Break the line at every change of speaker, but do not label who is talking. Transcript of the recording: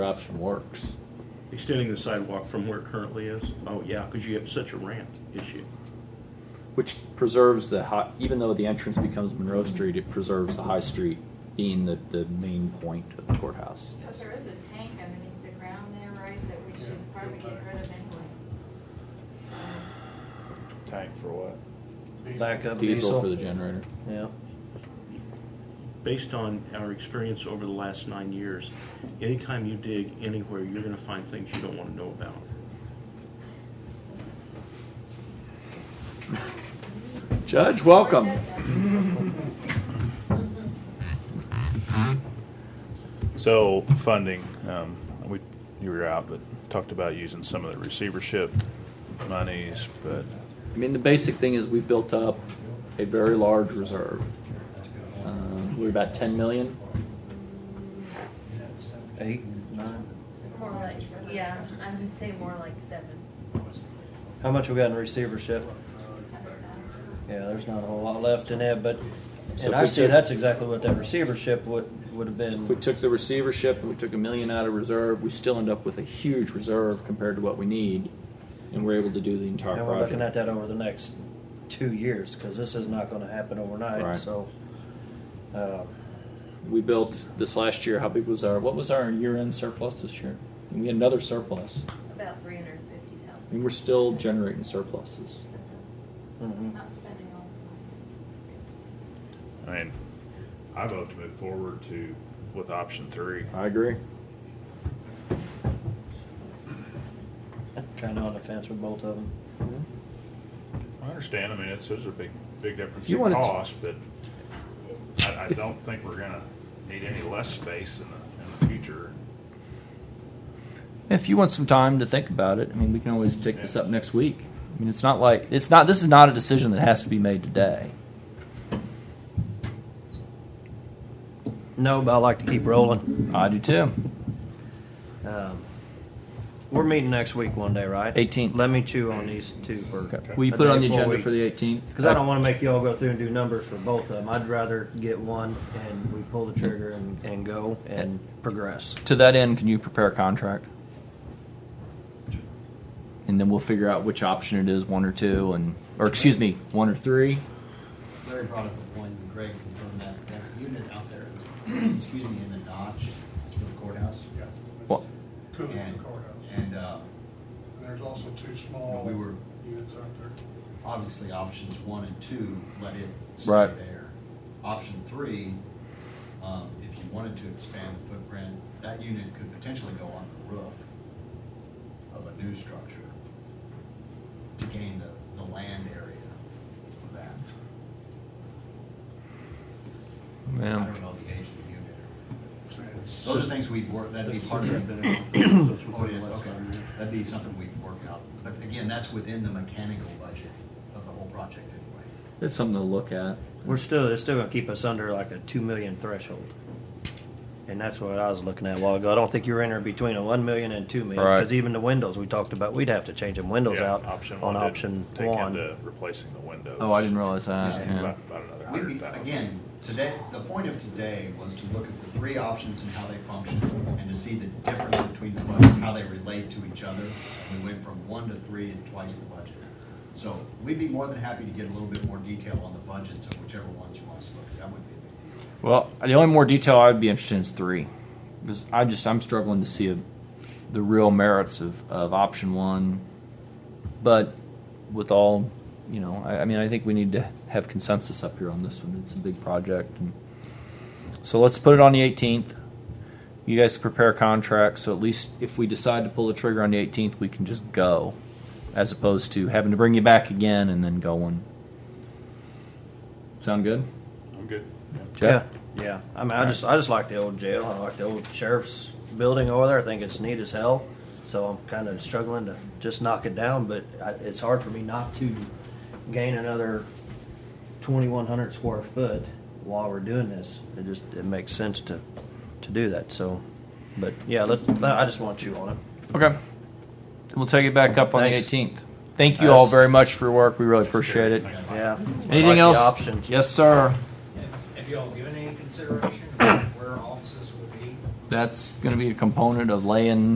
option works.
Extending the sidewalk from where it currently is? Oh, yeah, because you have such a ramp issue.
Which preserves the high, even though the entrance becomes Monroe Street, it preserves the High Street being the, the main point of the courthouse.
Because there is a tank underneath the ground there, right, that we should probably get rid of anyway. So,
Tank for what?
Backup
Diesel for the generator.
Yeah.
Based on our experience over the last nine years, anytime you dig anywhere, you're gonna find things you don't wanna know about.
Judge, welcome.
where's that go?
So funding, um, we, you were out, but talked about using some of the receivership monies, but
I mean, the basic thing is we've built up a very large reserve.
Uh,
Um, We're about ten million.
Eight, nine.
More like, yeah, I would say more like seven.
How much we got in receivership? Yeah, there's not a whole lot left in that, but,
So
and
if
I
we
see
took-
that's exactly what that receivership would, would have
If we
been.
took the receivership and we took a million out of reserve, we still end up with a huge reserve compared to what we need. And we're able to do the entire
And we're looking at
project.
that over the next two years, cause this is not gonna happen
Right.
overnight, so. um,
We built this last year, how big was our, what was our year-end surplus this year? And we had another surplus.
About three hundred and fifty
I mean, we're still generating surpluses.
mhm.
Not spending all the
I mean, I vote to move forward to, with option three.
I agree.
Kinda on the fence with both of them.
I understand, I mean, it's, there's a big, big difference
If you
in
wanted to-
cost, but
money.
I, I don't think we're gonna need any less space in the, in the future.
If you want some time to think about it, I mean, we can always take this up next week. I mean, it's not like, it's not, this is not a decision that has to be made today.
No, but I like to keep rolling.
I do too.
Um, We're meeting next week one day, right?
18th.
Let me chew on these two first.
Okay. Will you
A
put it
day
on the
before
agenda
we-
for the 18th?
Because I don't want to make y'all go through and do numbers for both of them. I'd rather get one and we pull the trigger and, and go and progress.
To that end, can you prepare a contract? And then we'll figure out which option it is, one or two, and, or excuse me, one or three.
Larry brought up a point, and Greg confirmed that, that unit out there, excuse me, in the Dodge, for the courthouse.
Yeah.
Well,
Cooling
And-
the courthouse.
And, uh,
And there's also two small
We were-
units out there.
obviously, options one and two, let it stay
Right.
there. Option three, um, if you wanted to expand the footprint, that unit could potentially go on the roof of a new structure to gain the, the land area for that. I
yeah.
don't know the age of the unit.
So it's-
Those are things we'd work, that'd be part of it. Oh, it is, okay. That'd be something we can work out. But again, that's within the mechanical budget of the whole project anyway.
It's something to look at.
We're still, it's still going to keep us under like a 2 million threshold. And that's what I was looking at a while ago. I don't think you're in there between a 1 million and 2 million.
Right.
Because even the windows we talked about, we'd have to change them windows
Yeah,
out
option
on
one did
option
take
one.
into Replacing the windows. Uh,
Oh, I didn't realize that.
About,
yeah.
about another
We'd
hundred
be,
thousand.
again, today, the point of today was to look at the three options and how they function and to see the difference between the budgets, how they relate to each other. We went from one to three and twice the budget. So we'd be more than happy to get a little bit more detail on the budgets of whichever ones you want us to look at. That would be a big deal.
Well, the only more detail I'd be interested in is three, because I just I'm struggling to see a, the real merits of, of option one. But with all, you know, I, I mean, I think we need to have consensus up here on this one. It's a big project, and so let's put it on the 18th. You guys prepare contracts, so at least if we decide to pull the trigger on the 18th, we can just go, as opposed to having to bring you back again and then going. Sound good?
I'm good. Yeah.
Jeff?
Yeah, yeah. I mean, I just I just like the old jail. I like the old sheriff's building over there. I think it's neat as hell. So I'm kind of struggling to just knock it down, but I, it's hard for me not to gain another 2,100 square foot while we're doing this. It just it makes sense to to do that. So, but yeah, let I just want you on it.
Okay. We'll take it back up on
Thanks.
the 18th. Thank you all very much for your work. We really appreciate it.
Yeah. I like
Anything
the
else?
Options.
Yes, sir.
Have y'all given any consideration where offices will be?
that's gonna be a component of laying